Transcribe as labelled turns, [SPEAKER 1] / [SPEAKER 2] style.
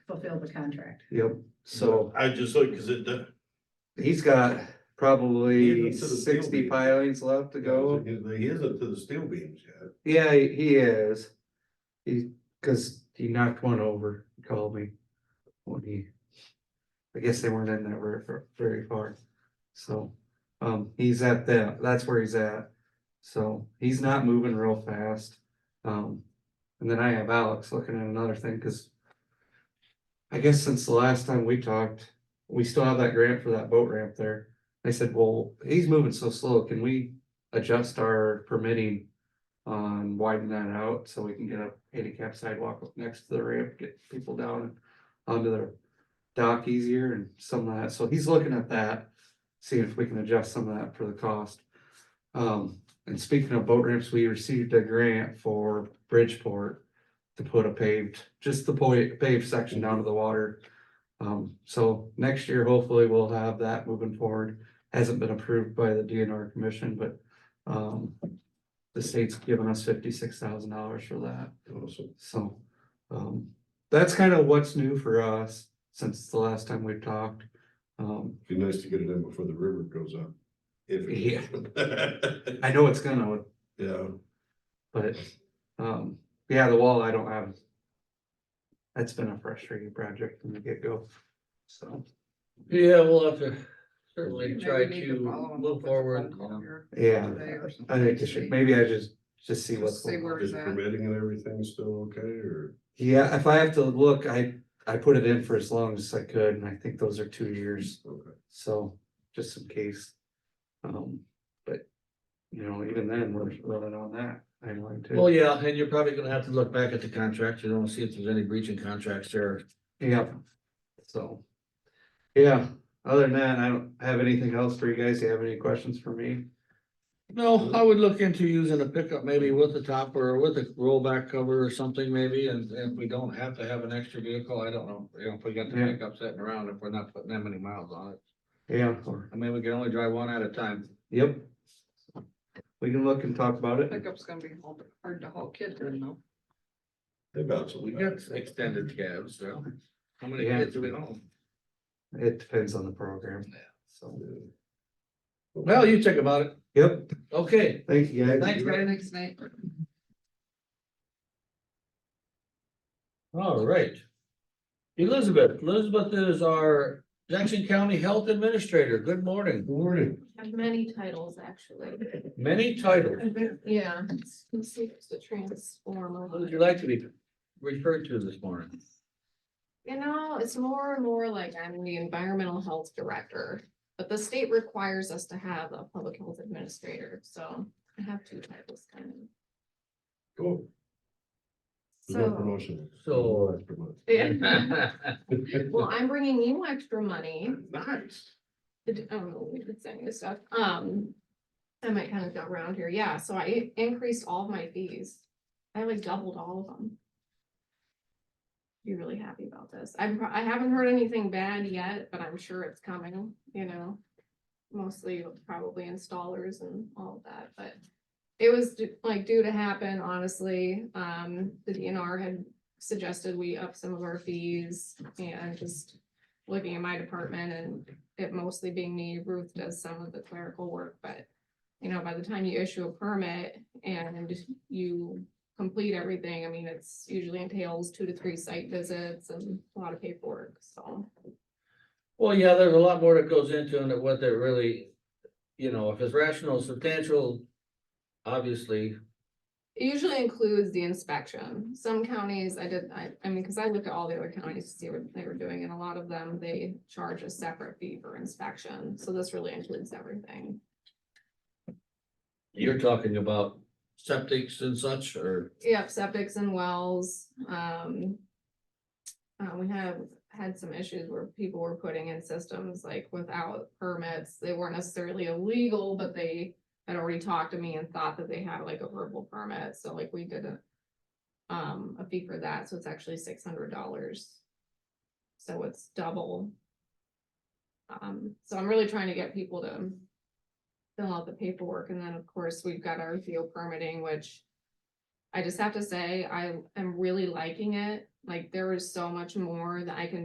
[SPEAKER 1] fulfill the contract.
[SPEAKER 2] Yep, so
[SPEAKER 3] I just like, cause it, do-
[SPEAKER 2] he's got
[SPEAKER 3] Even
[SPEAKER 2] probably
[SPEAKER 3] to the
[SPEAKER 2] sixty
[SPEAKER 3] field.
[SPEAKER 2] pilings left to go.
[SPEAKER 3] He he isn't to the steel beams yet.
[SPEAKER 2] Yeah, he uh, he is. He, cause he knocked one over, he called me. When he. I guess they weren't in that very, far- very far. So, um, he's at that, that's where he's at. So he's not moving real fast. Um, and then I have Alex looking at another thing, cause. I guess since the last time we talked, we still have that grant for that boat ramp there. I said, well, he's moving so slow, can we adjust our permitting? On widen that out so we can get a handicap sidewalk up next to the ramp, get people down onto their dock easier and some of that, so he's looking at that. Seeing if we can adjust some of that for the cost. Um, and speaking of boat ramps, we received a grant for Bridgeport. To put a paved, just the po- paved section down to the water. Um, so next year, hopefully we'll have that moving forward. Hasn't been approved by the DNR commission, but, um. The state's given us fifty-six thousand dollars for that.
[SPEAKER 3] Awesome.
[SPEAKER 2] So, um, that's kind of what's new for us since the last time we talked. Um,
[SPEAKER 3] Be nice to get it in before the river goes up. If. it-
[SPEAKER 2] I know it's gonna,
[SPEAKER 3] Yeah,
[SPEAKER 2] but, um, yeah, the wall I don't have. That's been a frustrating project from the get-go, so,
[SPEAKER 4] Yeah, we'll have to certainly
[SPEAKER 1] Maybe
[SPEAKER 4] try
[SPEAKER 1] we need follow
[SPEAKER 4] to
[SPEAKER 1] them up
[SPEAKER 4] move
[SPEAKER 1] with a
[SPEAKER 4] forward.
[SPEAKER 1] phone call here
[SPEAKER 2] yeah.
[SPEAKER 1] today or something.
[SPEAKER 2] I think it should, maybe I just, just see what's
[SPEAKER 1] Just see
[SPEAKER 2] going on.
[SPEAKER 1] where
[SPEAKER 3] is
[SPEAKER 1] it's at.
[SPEAKER 3] permitting and everything still okay, or?
[SPEAKER 2] Yeah, if I have to look, I, I put it in for as long as I could, and I think those are two years.
[SPEAKER 3] okay.
[SPEAKER 2] So, just in case. Um, but, you know, even then, we're running on that timeline too.
[SPEAKER 4] Well, yeah, and you're probably gonna have to look back at the contract, you know, and see if there's any breaching contracts there.
[SPEAKER 2] Yeah. So. Yeah, other than that, I don't have anything else for you guys. Do you have any questions for me?
[SPEAKER 4] No, I would look into using a pickup maybe with the top or with a rollback cover or something maybe, and and if we don't have to have an extra vehicle, I don't know. You know, if we got the
[SPEAKER 2] Yeah.
[SPEAKER 4] pickup sitting around, if we're not putting that many miles on it.
[SPEAKER 2] Yeah, or,
[SPEAKER 4] I mean, we can only drive one at a time.
[SPEAKER 2] yep. We can look and talk about it.
[SPEAKER 1] Pickup's gonna be hard- hard to haul kids in though.
[SPEAKER 3] They bounce.
[SPEAKER 4] We got extended cabs, so. How many
[SPEAKER 2] Yeah.
[SPEAKER 4] kids do we know?
[SPEAKER 2] It depends on the program.
[SPEAKER 4] Yeah.
[SPEAKER 2] So,
[SPEAKER 4] Well, you think about it.
[SPEAKER 2] yep,
[SPEAKER 4] Okay.
[SPEAKER 2] thank you guys.
[SPEAKER 4] Thanks, Brian.
[SPEAKER 1] Next night.
[SPEAKER 4] All right. Elizabeth, Elizabeth is our Jackson County Health Administrator. Good morning.
[SPEAKER 3] Morning.
[SPEAKER 5] Have many titles, actually.
[SPEAKER 4] Many titles.
[SPEAKER 5] Yeah, it's conceived to transform. a
[SPEAKER 4] What would
[SPEAKER 5] lot.
[SPEAKER 4] you like to be referred to this morning?
[SPEAKER 5] You know, it's more and more like I'm the environmental health director, but the state requires us to have a public health administrator, so I have two titles kind of.
[SPEAKER 3] Cool. No
[SPEAKER 5] So,
[SPEAKER 3] promotion.
[SPEAKER 4] So-
[SPEAKER 3] Extra money.
[SPEAKER 5] yeah, well, I'm bringing you extra money.
[SPEAKER 3] Nice.
[SPEAKER 5] I d- I don't know, we did send you stuff, um. I might kind of go around here, yeah, so I increased all of my fees, I like doubled all of them. Be really happy about this, I'm, pro- I haven't heard anything bad yet, but I'm sure it's coming, you know. Mostly probably installers and all of that, but. It was d- like due to happen, honestly, um, the DNR had suggested we up some of our fees and just. Looking at my department and it mostly being me, Ruth does some of the clerical work, but. You know, by the time you issue a permit and you complete everything, I mean, it's usually entails two to three site visits and a lot of paperwork, so.
[SPEAKER 4] Well, yeah, there's a lot more that goes into it, what they're really, you know, if it's rational, substantial, obviously,
[SPEAKER 5] It usually includes the inspection. Some counties, I did, I, I mean, because I looked at all the other counties to see what they were doing, and a lot of them, they charge a separate fee for inspection, so this really includes everything.
[SPEAKER 4] you're talking about septics and such, or
[SPEAKER 5] Yep, septics and wells, um. uh, we have had some issues where people were putting in systems like without permits, they weren't necessarily illegal, but they. Had already talked to me and thought that they had like a verbal permit, so like we did a. Um, a fee for that, so it's actually six hundred dollars. So it's double. Um, so I'm really trying to get people to. Fill out the paperwork, and then of course, we've got our field permitting, which. I just have to say, I am really liking it. Like there was so much more that I can